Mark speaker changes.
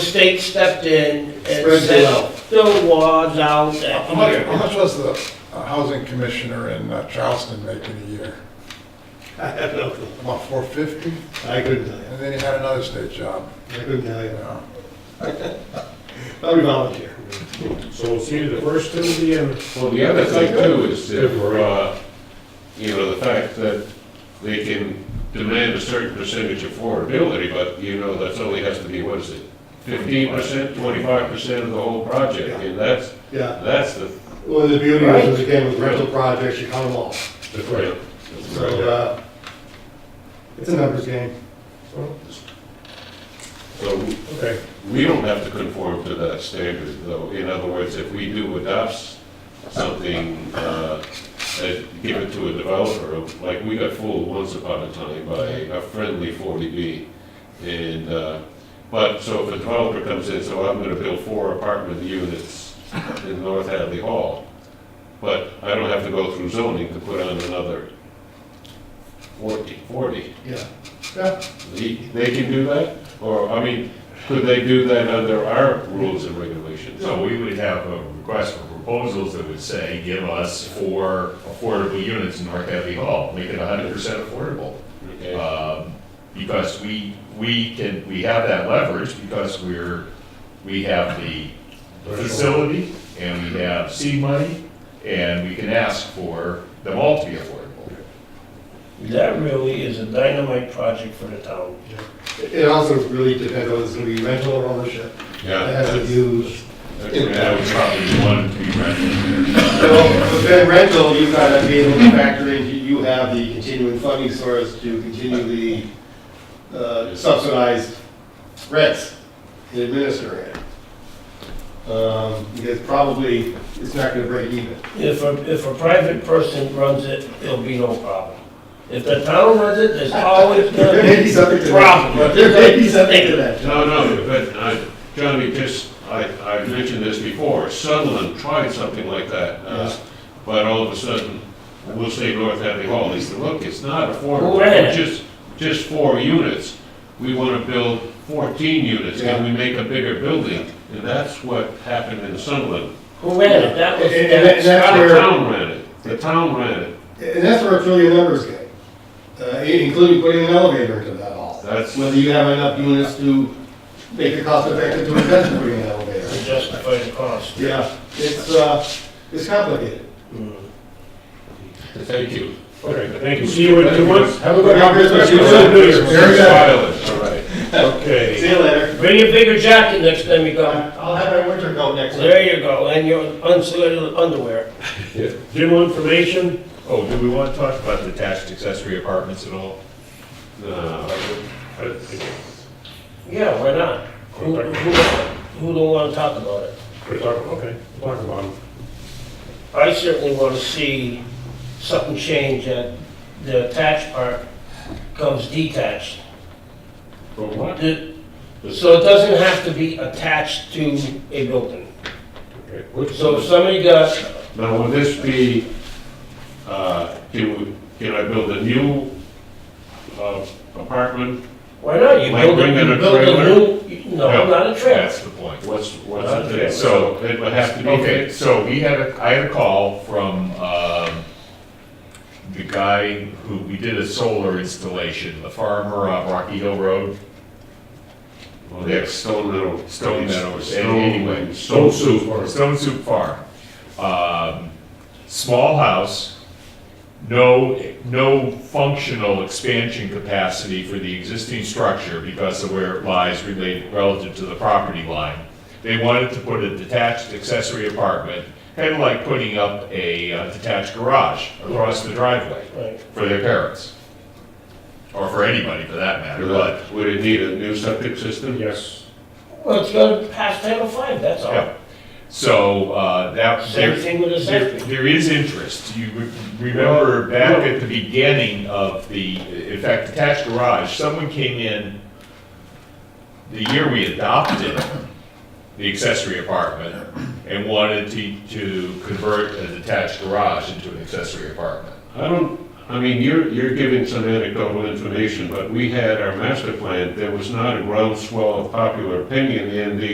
Speaker 1: state stepped in and
Speaker 2: Spreads it
Speaker 1: said,
Speaker 2: out.
Speaker 1: fill wads out
Speaker 2: How
Speaker 1: that
Speaker 2: much,
Speaker 1: year.
Speaker 2: how much was the uh, housing commissioner in uh, Charleston making a year?
Speaker 3: I have no clue.
Speaker 2: About four fifty?
Speaker 3: I couldn't tell you.
Speaker 2: And then he had another state job,
Speaker 3: I couldn't tell
Speaker 2: you
Speaker 3: you.
Speaker 2: know?
Speaker 3: Probably volunteer.
Speaker 4: So it's either the first Tuesday and.
Speaker 5: Well, the other thing too is if, uh, you know, the fact that they can demand a certain percentage of affordability, but you know, that's only has to be, what is it? Fifteen percent, twenty-five percent of the whole project, and that's,
Speaker 3: Yeah.
Speaker 5: that's the,
Speaker 3: Well, the beauty is, is again, with rental projects, you count them all.
Speaker 5: the threat.
Speaker 3: So, uh, it's a numbers game.
Speaker 5: So
Speaker 4: Okay,
Speaker 5: we don't have to conform to that standard, though. In other words, if we do adopt something, uh, that give it to a developer, like we got fooled once upon a time by a friendly 40B. And, uh, but, so if a developer comes in, so I'm gonna build four apartment units in North Hadley Hall, but I don't have to go through zoning to put on another 40, 40.
Speaker 3: Yeah. Yeah.
Speaker 5: He- They can do that? Or, I mean, could they do that under our rules and regulations?
Speaker 6: So we would have a request for proposals that would say, give us four affordable units in North Hadley Hall, make it hundred percent affordable.
Speaker 5: Okay.
Speaker 6: Um, Because we, we can, we have that leverage because we're, we have the facility and we have seed money and we can ask for them all to be affordable.
Speaker 1: That really is a dynamite project for the town.
Speaker 3: It it also really depends on, is it gonna be rental or ownership?
Speaker 5: Yeah,
Speaker 3: It has to
Speaker 5: that's-
Speaker 3: do
Speaker 5: that's- that would probably be one to be rented.
Speaker 3: Well, with Ben Rental, you've got to be able to factor in, you you have the continuing funding source to continue the uh, subsidized rents and administer it. Um, Because probably it's not going to break even.
Speaker 1: If a, if a private person runs it, it'll be no problem. If the town runs it, there's always
Speaker 3: There
Speaker 1: gonna
Speaker 3: may be
Speaker 1: be
Speaker 3: something to that.
Speaker 1: problems.
Speaker 3: There may be something to that.
Speaker 5: No, no, but uh, Johnny, just, I, I mentioned this before, Sunderland tried something like that. uh,
Speaker 3: Yeah.
Speaker 5: But all of a sudden, we'll say North Hadley Hall, he said, look, it's not
Speaker 1: Who
Speaker 5: affordable,
Speaker 1: ran it?
Speaker 5: It's just, just four units. We want to build fourteen units, can we make a bigger building? And that's what happened in Sunderland.
Speaker 1: Who ran it? That was,
Speaker 3: And- and- and
Speaker 1: that-
Speaker 3: that's
Speaker 5: The
Speaker 3: where-
Speaker 5: town ran it, the town ran it,
Speaker 3: And that's where filling the numbers go, uh, including putting an elevator into that hall.
Speaker 5: that's,
Speaker 3: Whether you have enough units to make it cost effective to invest in putting an elevator.
Speaker 1: to justify the cost.
Speaker 3: Yeah, it's, uh, it's complicated.
Speaker 5: thank you.
Speaker 4: okay, thank you. See you in two months. Have a good
Speaker 3: Merry Christmas.
Speaker 4: Christmas. Good New Year's.
Speaker 3: Merry Christmas.
Speaker 5: Violet, all right.
Speaker 3: See
Speaker 4: Okay.
Speaker 3: you later.
Speaker 1: Bring a bigger jacket next time you go.
Speaker 3: I'll have my winter coat next time.
Speaker 1: There you go, and your unsuited underwear.
Speaker 4: General information,
Speaker 6: Oh, do we want to talk about detached accessory apartments at all?
Speaker 5: No, I- I-
Speaker 1: Yeah, why not? Who, who, who don't wanna talk about it?
Speaker 4: we're talking, okay, talk about them.
Speaker 1: I certainly wanna see something change that the attached part comes detached.
Speaker 5: For what?
Speaker 1: The- So it doesn't have to be attached to a building.
Speaker 5: Okay, what's-
Speaker 1: So if somebody got,
Speaker 5: Now, will this be, uh, can we, can I build a new uh, apartment?
Speaker 1: why not, you
Speaker 5: Like
Speaker 1: build
Speaker 5: bringing
Speaker 1: a,
Speaker 5: a
Speaker 1: you build a new, no,
Speaker 6: No.
Speaker 1: not a trailer.
Speaker 6: That's the point.
Speaker 5: What's,
Speaker 1: Uh,
Speaker 5: what's it,
Speaker 6: so-
Speaker 5: so it would have to be
Speaker 6: Okay,
Speaker 5: fixed?
Speaker 6: so we had a, I had a call from, um, the guy who, we did a solar installation, the farmer on Rocky Hill Road.
Speaker 5: Well, yeah, Stone Meadow.
Speaker 6: Stone Meadows,
Speaker 5: Stone-
Speaker 6: anyway.
Speaker 5: Stone Soup.
Speaker 6: Stone Soup Farm. Um, small house, no, no functional expansion capacity for the existing structure because of where it lies related, relative to the property line. They wanted to put a detached accessory apartment, kind of like putting up a uh, detached garage across the driveway
Speaker 1: Right.
Speaker 6: for their parents. Or for anybody for that matter, but
Speaker 5: But would it need a new septic system?
Speaker 4: Yes.
Speaker 1: Well, it's gonna pass Title Five. that's all.
Speaker 6: Yeah. So, uh, that,
Speaker 1: Same
Speaker 6: there,
Speaker 1: thing with the
Speaker 6: there-
Speaker 1: septic.
Speaker 6: there is interest. You re- remember back at the beginning of the, in fact, detached garage, someone came in the year we adopted the accessory apartment and wanted to, to convert a detached garage into an accessory apartment.
Speaker 5: I don't, I mean, you're, you're giving some anecdotal information, but we had our master plan, there was not a groundswell of popular opinion in the